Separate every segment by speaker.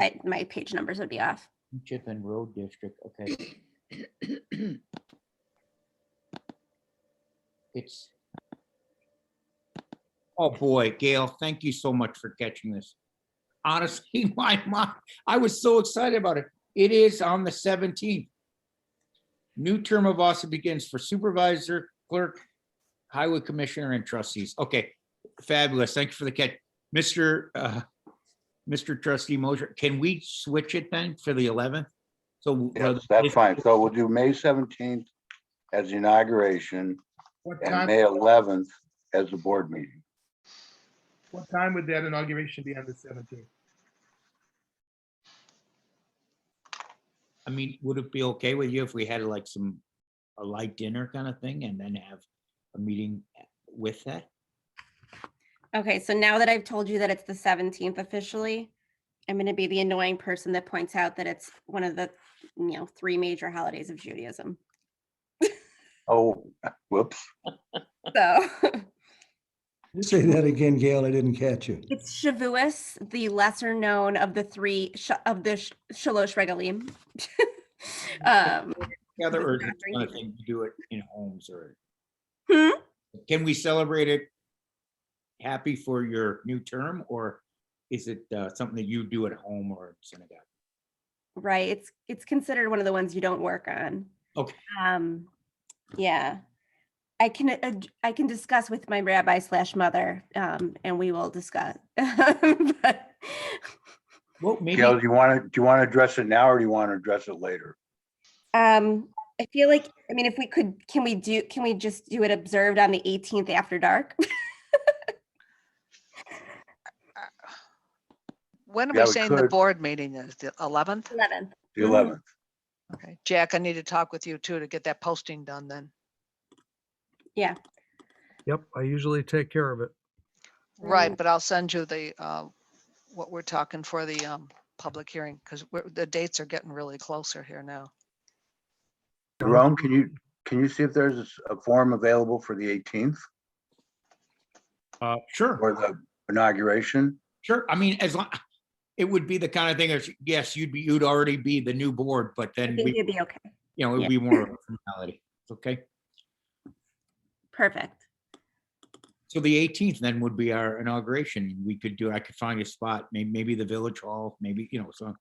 Speaker 1: I, my page numbers would be off.
Speaker 2: Chip and Road District, okay. It's. Oh, boy, Gail, thank you so much for catching this. Honestly, my, my, I was so excited about it. It is on the seventeenth. New term of office begins for supervisor, clerk, highway commissioner and trustees. Okay, fabulous. Thank you for the catch. Mr. uh, Mr. Trustee Mosher, can we switch it then for the eleventh? So.
Speaker 3: Yes,
Speaker 2: uh,
Speaker 3: that's fine. So we'll do May seventeenth as the inauguration
Speaker 4: What
Speaker 3: and
Speaker 4: time,
Speaker 3: May eleventh as the board meeting.
Speaker 4: what time would that inauguration be on the seventeenth?
Speaker 2: I mean, would it be okay with you if we had like some, a light dinner kind of thing and then have a meeting with that?
Speaker 1: Okay, so now that I've told you that it's the seventeenth officially, I'm gonna be the annoying person that points out that it's one of the, you know, three major holidays of Judaism.
Speaker 3: Oh, whoops.
Speaker 1: So
Speaker 5: Say that again, Gail, I didn't catch you.
Speaker 1: it's Shavuos, the lesser known of the three sh- of the sh- Shalosh Regalim. um,
Speaker 2: Together or
Speaker 1: Not
Speaker 2: just
Speaker 1: during
Speaker 2: kind of
Speaker 1: the-
Speaker 2: thing, you do it in homes or?
Speaker 1: Hmm?
Speaker 2: Can we celebrate it? Happy for your new term or is it uh, something that you do at home or synagogue?
Speaker 1: right, it's it's considered one of the ones you don't work on.
Speaker 2: Okay.
Speaker 1: Um, yeah, I can ad- I can discuss with my rabbi slash mother, um, and we will discuss. but,
Speaker 2: Well, maybe,
Speaker 3: Gail, do you want to, do you want to address it now or do you want to address it later?
Speaker 1: Um, I feel like, I mean, if we could, can we do, can we just do it observed on the eighteenth after dark?
Speaker 6: When are
Speaker 3: Yeah,
Speaker 6: we
Speaker 3: we
Speaker 6: saying the
Speaker 3: could.
Speaker 6: board meeting is? The eleventh?
Speaker 1: Eleventh.
Speaker 3: The
Speaker 1: Mhm.
Speaker 3: eleventh?
Speaker 6: Okay, Jack, I need to talk with you too to get that posting done then.
Speaker 7: Yep, I usually take care of it.
Speaker 3: Mm.
Speaker 6: Right, but I'll send you the, uh, what we're talking for the, um, public hearing, because the dates are getting really closer here now.
Speaker 3: Jerome, can you, can you see if there's a s- a form available for the eighteenth
Speaker 2: uh, sure.
Speaker 3: or the inauguration?
Speaker 2: Sure, I mean, as long, it would be the kind of thing, as, yes, you'd be, you'd already be the new board, but
Speaker 1: I
Speaker 2: then,
Speaker 1: think
Speaker 2: we
Speaker 1: it'd be okay.
Speaker 2: you know,
Speaker 1: yeah.
Speaker 2: it'd be more of a formality, okay?
Speaker 1: Perfect.
Speaker 2: So the eighteenth then would be our inauguration, we could do, I could find a spot, may, maybe the village hall, maybe, you know, so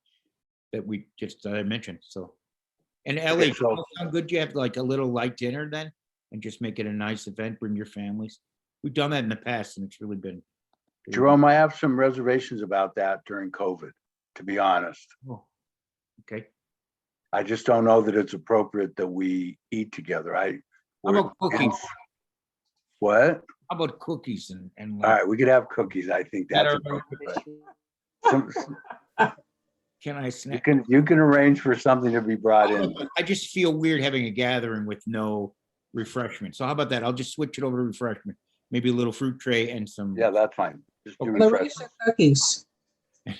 Speaker 2: that we just, that I mentioned, so. And Ellie,
Speaker 3: so-
Speaker 2: how how good you have like a little light dinner then, and just make it a nice event, bring your families. We've done that in the past and it's really been.
Speaker 3: Jerome, I have some reservations about that during COVID, to be honest.
Speaker 2: Oh, Okay,
Speaker 3: I just don't know that it's appropriate that we eat together. I.
Speaker 2: how
Speaker 3: we're-
Speaker 2: about cookies, how
Speaker 3: What?
Speaker 2: about cookies and, and.
Speaker 3: All
Speaker 2: like-
Speaker 3: right, we could have cookies. I think
Speaker 2: That
Speaker 3: that's
Speaker 2: are-
Speaker 3: appropriate. Some-
Speaker 2: Can I
Speaker 3: You
Speaker 2: snack?
Speaker 3: can, you can arrange for something to be brought in.
Speaker 2: I just feel weird having a gathering with no refreshment. So how about that? I'll just switch it over to refreshment. Maybe a little fruit tray and some.
Speaker 3: Yeah, that's fine. Just do
Speaker 2: Okay.
Speaker 3: refresh.
Speaker 8: cookies.
Speaker 2: Do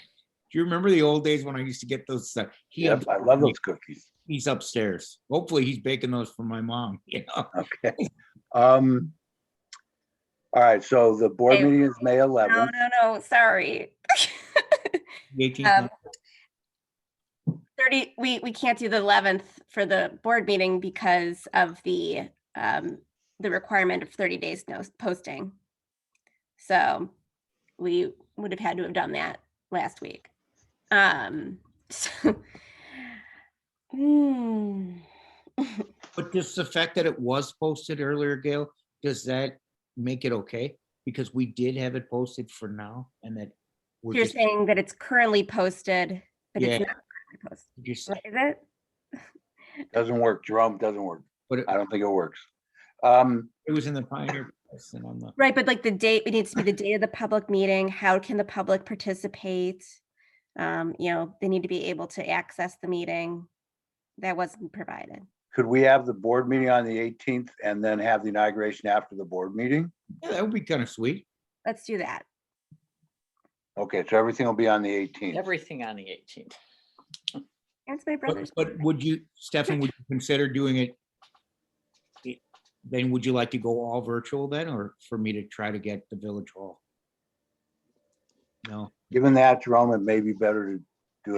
Speaker 2: you remember the old days when I used to get those? uh, he
Speaker 3: Yep,
Speaker 2: up-
Speaker 3: I love those cookies.
Speaker 2: He's upstairs. Hopefully he's baking those for my mom, you know?
Speaker 3: Okay. Um. All right, so the board
Speaker 1: Okay.
Speaker 3: meeting is May
Speaker 1: No,
Speaker 3: eleventh.
Speaker 1: no, no, sorry.
Speaker 2: the 18th.
Speaker 1: Um, Thirty, we, we can't do the eleventh for the board meeting because of the, um, the requirement of thirty days no posting. So we would have had to have done that last week. Um, so- Hmm.
Speaker 2: But just the fact that it was posted earlier, Gail, does that make it okay? Because we did have it posted for now and that. we're
Speaker 1: You're
Speaker 2: just-
Speaker 1: saying that it's currently posted, but
Speaker 2: Yeah.
Speaker 1: it's not currently posted,
Speaker 2: just-
Speaker 1: What is it?
Speaker 3: Doesn't work, Jerome, doesn't work.
Speaker 2: But it
Speaker 3: I don't think it works. Um,
Speaker 2: it was in the Pioneer Press and I'm not.
Speaker 1: Right, but like the date, it needs to be the day of the public meeting. How can the public participate? Um, you know, they need to be able to access the meeting. That wasn't provided.
Speaker 3: could we have the board meeting on the eighteenth and then have the inauguration after the board meeting?
Speaker 2: Yeah, that would be kind of sweet.
Speaker 1: Let's do that.
Speaker 3: Okay, so everything will be on the eighteenth.
Speaker 8: Everything on the eighteenth.
Speaker 1: That's my brother's.
Speaker 2: But, but would you, Stefan, would you consider doing it? i- Then would you like to go all virtual then, or for me to try to get the village hall? No,
Speaker 3: Given that, Jerome, it may be better to